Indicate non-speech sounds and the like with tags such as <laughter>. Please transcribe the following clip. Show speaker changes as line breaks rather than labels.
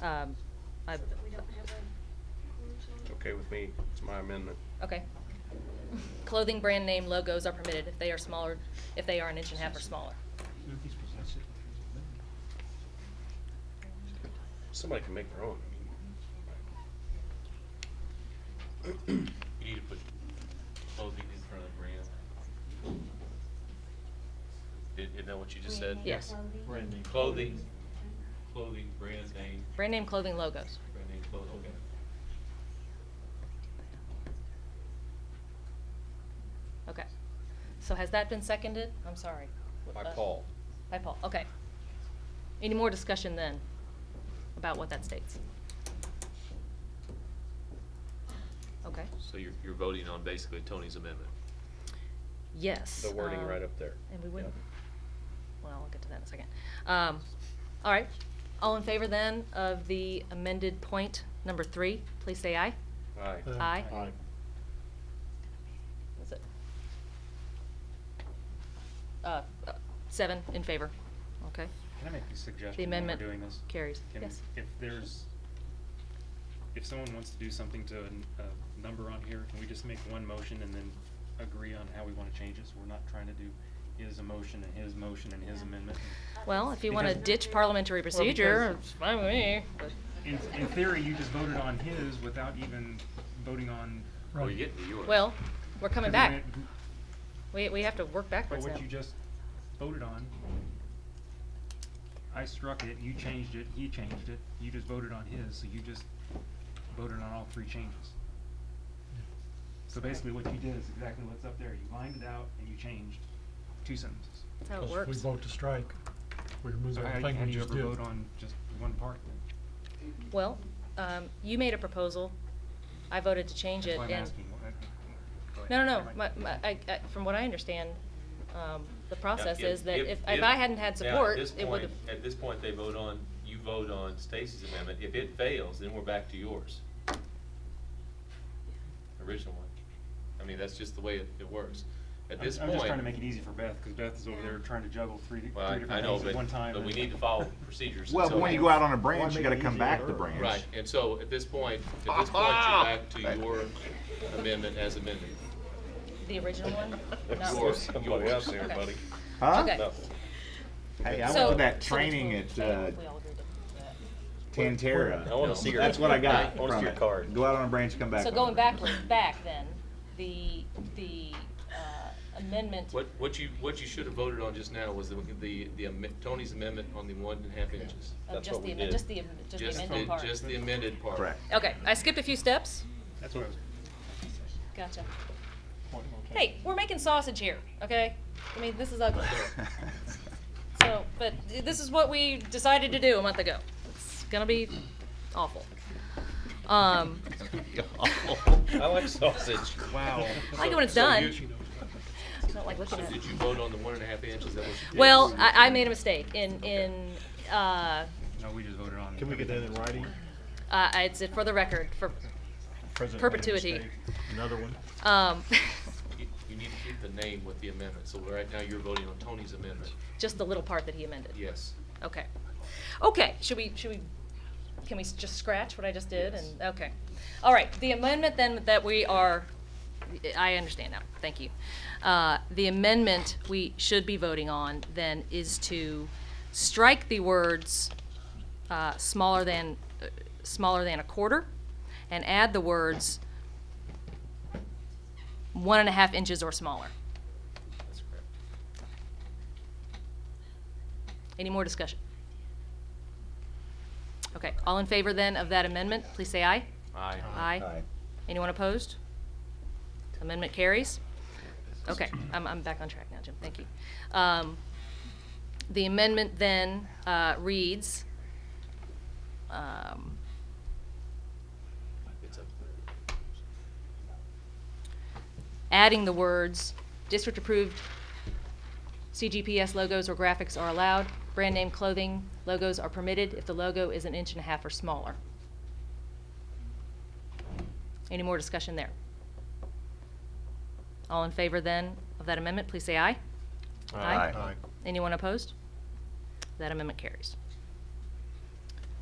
Um, I,
so that we don't have a.
It's okay with me, it's my amendment.
okay. Clothing brand name logos are permitted if they are smaller, if they are an inch and a half or smaller.
Somebody can make their own. I mean,
You need to put clothing in front of the brand. Is- Isn't that what you just said?
name. Yes.
Brand name.
Clothing, clothing, brand name,
Brand name clothing logos.
brand name clothing, okay.
Okay. So has that been seconded? I'm sorry.
By
Uh,
Paul.
By Paul, okay. Any more discussion then about what that states? Okay,
So you're, you're voting on basically Tony's amendment.
yes.
The wording
um,
right up there.
And we wouldn't,
Yeah.
well, I'll get to that in a second. Um, all right, all in favor then of the amended point number three, please say aye.
Aye.
Aye.
Uh, Aye.
That's it. Uh, uh, seven in favor, okay?
Can I make a
The
suggestion when we're
amendment
doing this?
carries,
Can-
yes.
If there's, if someone wants to do something to a, n- a number on here, can we just make one motion and then agree on how we wanna change it? So we're not trying to do his motion and his motion and his
Yeah.
amendment.
Well, if you want to
Because-
ditch parliamentary
Well,
procedure,
because-
it's fine with me. but-
In, in theory, you just voted on his without even voting on.
Well, you're getting to yours.
Well, we're coming back.
Because when-
We, we have to work
But
backwards now.
what you just voted on, I struck it, you changed it, he changed it, you just voted on his, so you just voted on all three changes. So basically what you did is exactly what's up there, you lined it out and you changed two sentences.
That's how it
Because if we
works.
vote to strike, we remove
So
that
how,
thing
how
we
do you
just
ever
did.
vote on just one part then?
Well, um, you made a proposal. I voted to change
That's
it
why I'm
and.
asking. what- go ahead.
No, no, no.
Never
My,
mind.
my, I, I, from what I understand, um, the
Now,
process
if-
is that if, if I hadn't had
now, at
support,
this
it would have.
point- At this point, they vote on, you vote on Stacy's amendment. If it fails, then we're back to yours. Original one. I mean, that's just the way it, it works. At
I'm-
this
I'm
point.
just trying to make it easy for Beth, cause Beth is over there trying to juggle three, di-
Well, I-
three
I
different
know,
things at one
but,
time.
but we
and-
need to follow procedures. and
Well,
so
but when you
on.
go out on a
Why
branch, you
make
gotta
it
come
easier
back
on
the
her?
branch.
Right, and so at this point, at this point, you're back to your amendment as amended.
The original one? Not-
Yours, somebody else there,
Okay.
buddy.
Huh?
Okay.
No.
Hey, I
So-
went to that
so which
training
one?
at uh,
We all agreed to that.
Tantera.
I wanna see your-
That's what I got
I wanna see
from
your
it.
card.
Go out on a branch, come back.
So
on a
going
<laughs> branch.
backwards, back then, the, the uh, amendment.
What, what you, what you should have voted on just now was the, the, the amen- Tony's amendment on the one and a half inches.
Of
That's
just
what we
the amendment, just
did.
the, am- just the
Just
amended
the,
part.
just the amended part.
Correct.
Okay, I skipped a few steps.
That's what I was.
Gotcha.
Point of
Hey, we're making sausage here, okay? I mean, this is ugly. So, but this is what we decided to do a month ago. It's gonna be awful. Um,
<laughs> I like sausage. <laughs>
Wow.
I like it when it's
So
done.
you-
I don't like looking
So
at it.
did you vote on the one and a half inches? Is that what you did?
Well, I, I made a mistake in, in, uh,
No, we just voted on.
Can we get that in
everything.
writing?
uh, it's for the record, for,
President made a
Perpetuity.
mistake. Another one.
um, <laughs>
You you need to keep the name with the amendment. So right now, you're voting on Tony's amendment.
just the little part that he amended.
Yes.
Okay. Okay, should we, should we, can we s- just scratch what I just did and, okay. All right, the amendment then that we are, I understand now, thank you. Uh, The amendment we should be voting on then is to strike the words uh, smaller than, uh, smaller than a quarter and add the words one and a half inches or smaller.
That's correct.
Any more discussion? Okay, all in favor then of that amendment, please say aye.
Aye.
Aye. Anyone opposed? Amendment carries? Okay, I'm, I'm back on track now, Jim, thank you. Um, The amendment then uh, reads, um,
It's up.
adding the words, district-approved CGPS logos or graphics are allowed, brand name clothing logos are permitted if the logo is an inch and a half or smaller. Any more discussion there? All in favor then of that amendment, please say aye.
Aye.
Aye.
Anyone opposed? That amendment carries.